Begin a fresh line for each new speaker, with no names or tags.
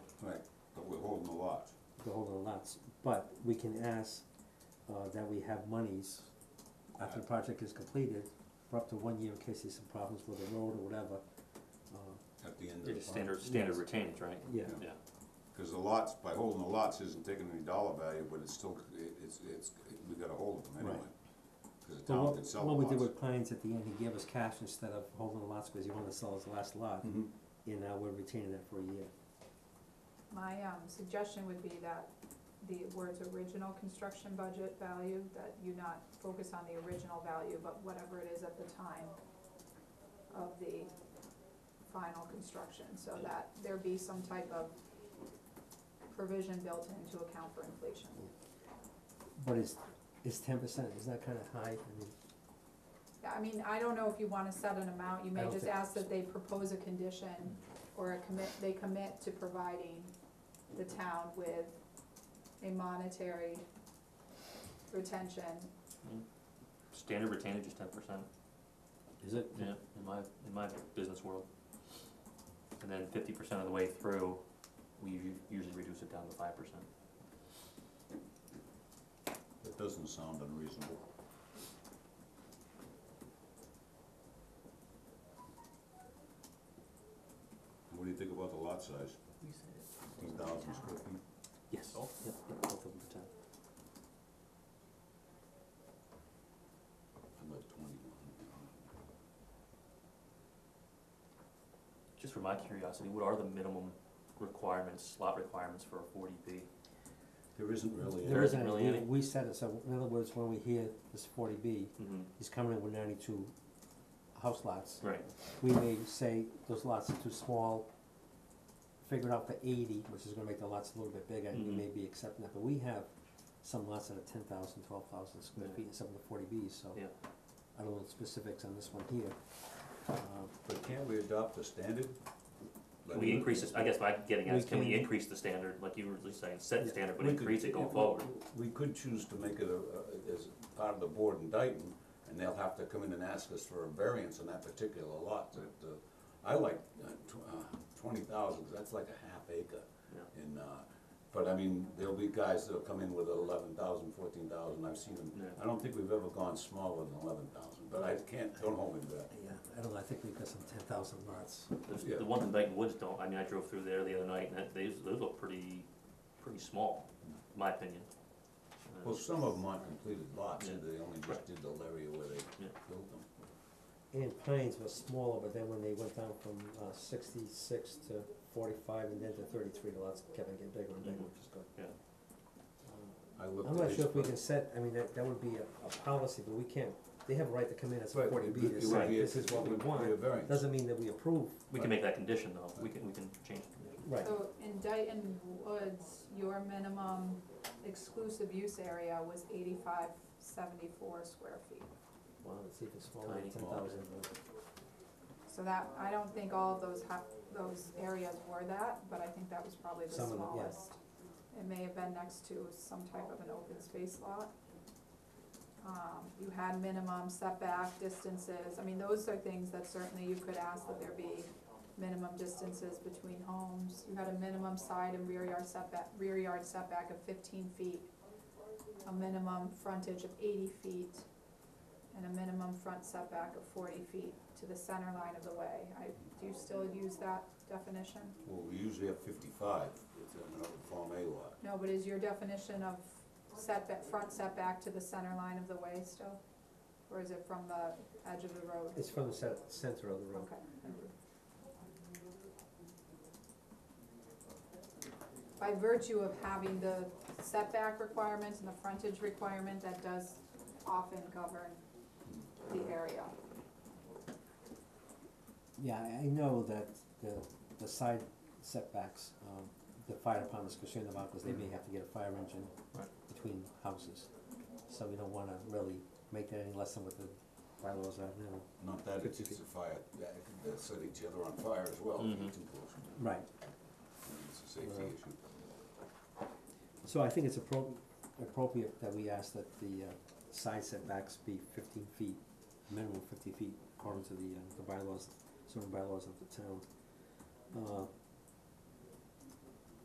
the whole nine lots, but we can ask, uh, that we have monies after the project is completed, for up to one year in case there's some problems with the road or whatever, uh,
at the end of
Yeah,
the
just standard, standard retainage, right?
yeah,
Yeah.
Yeah,
Because the lots, by holding the lots isn't taking any dollar value, but it's still, it- it's, it's, we got a hold of them anyway. Because the
So
town
what-
can sell the
What we did
lots.
with Pines at the end, he gave us cash instead of holding the lots, cause he wanted to sell his last lot,
Mhm.
and now we're retaining that for a year.
My um suggestion would be that the words original construction budget value, that you not focus on the original value, but whatever it is at the time of the final construction, so that there be some type of provision built in to account for inflation.
But it's, it's ten percent, is that kinda high, I mean,
I mean, I don't know if you wanna set an amount, you
I
may
don't
just
think-
ask that they propose a condition or a commit, they commit to providing the town with a monetary retention.
standard retainage is ten percent,
is it?
yeah, in my, in my business world. And then fifty percent of the way through, we u- usually reduce it down to five percent.
It doesn't sound unreasonable. What do you think about the lot size? Fifteen thousand square feet?
Yes.
Oh.
Yep, yep, both of them for ten.
About twenty-one.
Just for my curiosity, what are the minimum requirements, slot requirements for a forty B?
There isn't really.
There
There
isn't,
isn't really
we,
any.
we set it, so in other words, when we hear this forty B,
Mm-hmm.
he's coming in with ninety-two house lots.
Right,
We may say those lots are too small, figure it out for eighty, which is gonna make the lots a little bit bigger, and we
Mhm.
may be accepting that, but we have some lots that are ten thousand, twelve thousand square
Yeah.
feet, and some of the forty Bs, so.
Yeah.
I don't know the specifics on this one here, uh,
But can't we adopt the standard?
can we increase this, I guess my getting at
We
is, can we
can-
increase the standard, like you were just saying, set the
Yeah,
standard, but
we could-
increase it
yeah,
going
we-
forward?
We could choose to make it a, a- as part of the board in Dayton, and they'll have to come in and ask us for a variance on that particular lot. That, uh, I like twenty thousand, that's like a half acre.
Yeah.
And, uh, but I mean, there'll be guys that'll come in with eleven thousand, fourteen thousand, I've seen them.
Yeah.
I don't think we've ever gone smaller than eleven thousand, but I can't, don't hold me to that.
yeah, I don't know, I think we've got some ten thousand lots.
There's-
Yeah.
The ones in Dayton Woods don't, I mean, I drove through there the other night, and that, these, those look pretty, pretty small, in my opinion. Uh,
Well, some of them aren't completed lots, and they only just
Right.
did the area where they
Yeah.
built them.
And Pines was smaller, but then when they went down from uh sixty-six to forty-five and then to thirty-three, the lots kept on getting bigger and bigger,
Mhm.
which is good. Um,
Yeah.
I looked
I'm
at
not
his
sure if we
book.
can set, I mean, that that would be a a policy, but we can't, they have a right to come in as a
Right,
forty
it
B
would-
to
it would
say,
be a-
this is what
it
we
would be
want,
a variance.
doesn't mean that we approve,
We can make that condition, though, we can, we can change the condition.
right,
So in Dayton Woods, your minimum exclusive use area was eighty-five seventy-four square feet.
well, it's even smaller than
Tiny.
ten thousand.
So that, I don't think all of those ha- those areas were that, but I think that was probably the
Some of
smallest.
them, yeah.
It may have been next to some type of an open space lot. Um, you had minimum setback distances, I mean, those are things that certainly you could ask that there be minimum distances between homes. You had a minimum side and rear yard setback, rear yard setback of fifteen feet, a minimum frontage of eighty feet, and a minimum front setback of forty feet to the center line of the way. I, do you still use that definition?
Well, we usually have fifty-five, it's an open Form A lot.
No, but is your definition of setback, front setback to the center line of the way still? Or is it from the edge of the road?
It's from the cen- center of the room.
Okay. By virtue of having the setback requirement and the frontage requirement, that does often govern the area.
Yeah, I I know that the the side setbacks, um the fire department's concerned about, cause they may have to get a fire engine
Right.
between houses. So we don't wanna really make that any less than what the bylaws are now.
Not that it's
Fifty
just a fire, that, that set each other on fire as well, if you're too close.
Right.
It's a safety
Mm-hmm. Right.
issue.
So I think it's appro- appropriate that we ask that the uh side setbacks be fifteen feet, minimum fifty feet according to the uh the bylaws, zoning bylaws of the town. Uh